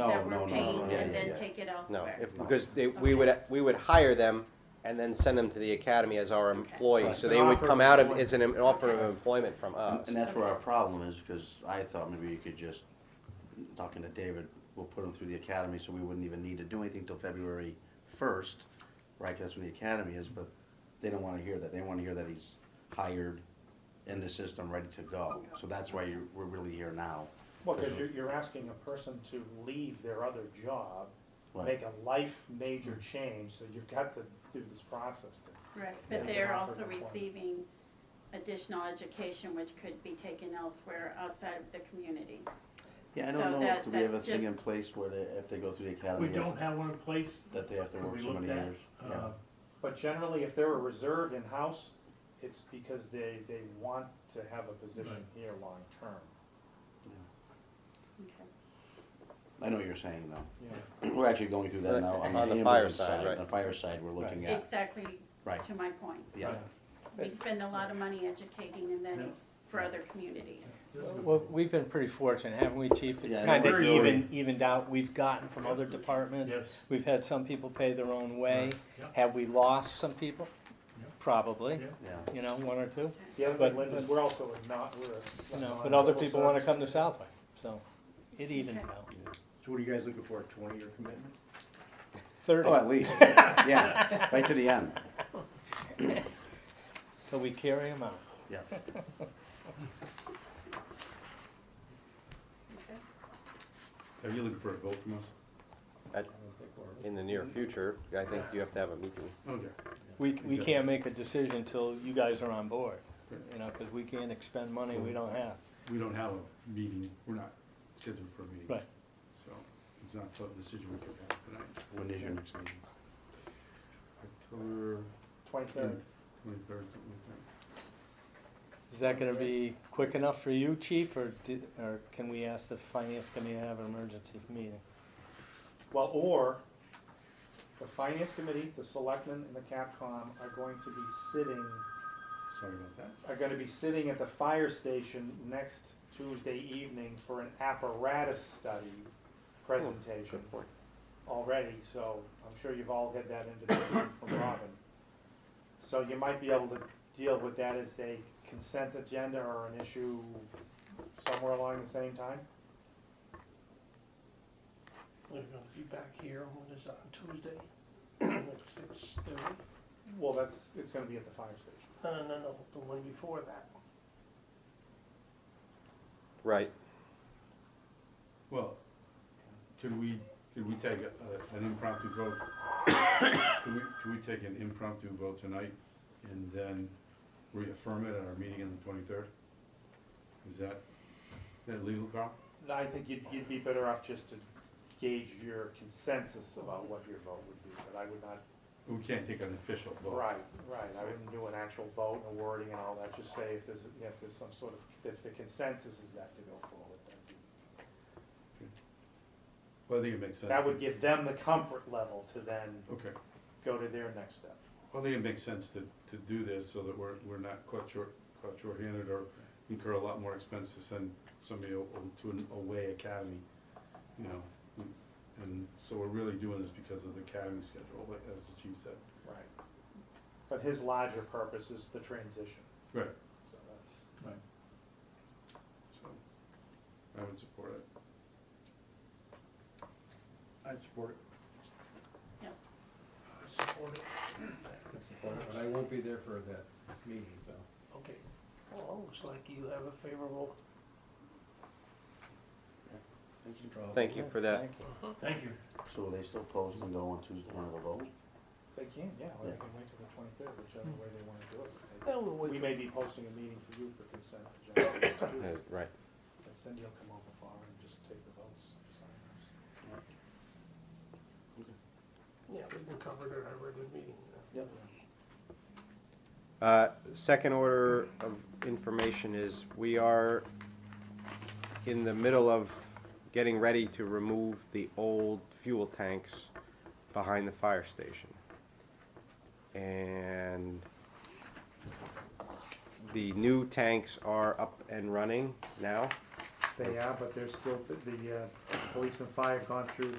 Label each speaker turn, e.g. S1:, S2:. S1: Oh, No,
S2: that
S1: no,
S2: we're
S1: no, no,
S2: paying
S1: no,
S2: and
S1: yeah,
S2: then
S1: yeah.
S2: take it
S3: No,
S2: elsewhere?
S3: if, because they, we would, we would hire them and then send them to the academy as our employee,
S1: Right,
S3: so
S1: an
S3: they would
S4: offer
S3: come
S4: of
S3: out of,
S4: employment.
S3: it's an an offer of employment from us.
S1: Uh, And that's where our problem is, because I thought maybe you could just, talking to David, we'll put them through the academy, so we wouldn't even need to do anything till February first, right, 'cause that's when the academy is, but they don't wanna hear that, they wanna hear that he's hired in the system, ready to go, so that's why you're, we're really here now.
S4: Well, because you're, you're asking a person to leave their other job,
S1: Right. Mm-hmm.
S4: make a life major change, so you've got to do this process to.
S2: Right,
S4: Yeah.
S2: but they're
S4: Yeah.
S2: also receiving additional education which could be taken elsewhere outside of the community.
S1: Yeah, I
S2: So
S1: don't know,
S2: that-
S1: do we have a
S2: that's
S1: thing
S2: just-
S1: in place where they, if they go through the academy?
S5: We don't have one in place.
S1: That they have to
S5: that
S1: work
S5: we
S1: so many
S5: looked at.
S1: years,
S5: Uh,
S1: yeah.
S4: But generally, if they're a reserve in-house, it's because they, they want to have a position
S5: Right.
S4: here long-term.
S2: Okay.
S1: I know what you're saying though.
S4: Yeah.
S1: We're actually going through that
S3: Right,
S1: now on the
S3: on the fire
S1: ambulance
S3: side,
S1: side,
S3: right.
S1: on the fire side, we're looking at,
S2: Exactly
S1: right,
S2: to my point.
S1: yeah.
S2: We spend a lot of money educating and
S5: Yeah.
S2: then for other communities.
S6: Well, we've been pretty fortunate, haven't we, Chief? It's
S1: Yeah,
S6: kind of
S5: very.
S6: even, evened out, we've gotten from other departments.
S5: Yes.
S6: We've had some people pay their own way.
S5: Yeah.
S6: Have we lost some people?
S5: Yeah.
S6: Probably,
S5: Yeah.
S1: Yeah,
S6: you know, one or two,
S4: The other
S6: But-
S4: thing, Linda, is we're also a not, we're. a-
S6: you know,
S4: a
S6: but other
S4: civil
S6: people want to
S4: service.
S6: come to Southwick, so it evens
S2: Okay.
S6: out.
S7: So what are you guys looking for, a twenty-year commitment?
S6: Thirty,
S1: oh, at least, yeah, right to the end,
S6: till we carry them out.
S1: yeah.
S2: Okay.
S7: Are you looking for a vote from us?
S3: At- In the near future, I think you have to have a meeting.
S7: Okay.
S6: We, we can't make a decision till you guys are on board, you know, because we can't expend money we don't have.
S7: We don't have a meeting, we're not scheduled for a meeting.
S6: Right.
S7: So it's not some decision we could have tonight.
S1: When is your next meeting?
S7: October
S4: Twenty-third.
S7: twenty-third, something like
S6: Is that gonna be quick enough for you, chief, or di or can we ask the finance committee to have an emergency meeting?
S4: Well, or the finance committee, the selectmen, and the CAPCOM are going to be sitting,
S7: that. Sorry about that.
S4: are gonna be sitting at the fire station next Tuesday evening for an apparatus study presentation
S3: point.
S4: already, so I'm sure you've all had that invitation from Robin. So you might be able to deal with that as a consent agenda or an issue somewhere along the same time?
S8: We're gonna be back here on this on Tuesday at six thirty.
S4: Well, that's, it's gonna be at the fire station.
S8: No, no, no, no, the one before that.
S3: Right,
S7: Well, could we, could we take a- an impromptu vote? Could we, could we take an impromptu vote tonight and then reaffirm it at our meeting on the twenty-third? Is that, is that legal, Carl?
S4: No, I think you'd, you'd be better off just to gauge your consensus about what your vote would be, but I would not,
S7: We can't take an official vote.
S4: right, right, I wouldn't do an actual vote and wording and all that, just say if there's, if there's some sort of, if the consensus is that to go forward, then.
S7: Well, I think it makes sense.
S4: That would give them the comfort level to then
S7: Okay,
S4: go to their next step.
S7: well, I think it makes sense to, to do this so that we're, we're not caught short, caught short-handed or incur a lot more expense to send somebody o- o- to an away academy, you know? And so we're really doing this because of the academy schedule, like, as the chief said.
S4: Right. But his larger purpose is the transition,
S7: Right.
S4: so that's.
S7: So, I would support it.
S9: I'd support it.
S2: Yep.
S8: I support it.
S9: I'd support it, but I won't be there for that meeting, so.
S8: Okay, well, looks like you have a favorable,
S3: thank you for that.
S8: Uh-huh.
S5: Thank you.
S1: So will they still post and go on Tuesday, one of the vote?
S4: They can, yeah, or
S1: Yeah.
S4: they can wait till the twenty-third, whichever way they wanna do it. They-
S8: well, we'll
S4: We
S8: wait,
S4: may be posting a meeting for you for consent agenda. too.
S3: Yeah, Uh, Right.
S4: And Cindy will come over for and just take the votes, sign us.
S8: yeah, we can cover it at our regular meeting.
S4: Yep.
S3: Uh, Second order of information is we are in the middle of getting ready to remove the old fuel tanks behind the fire station. And the new tanks are up and running now.
S4: They are, but they're still, the, uh, police and fire have gone through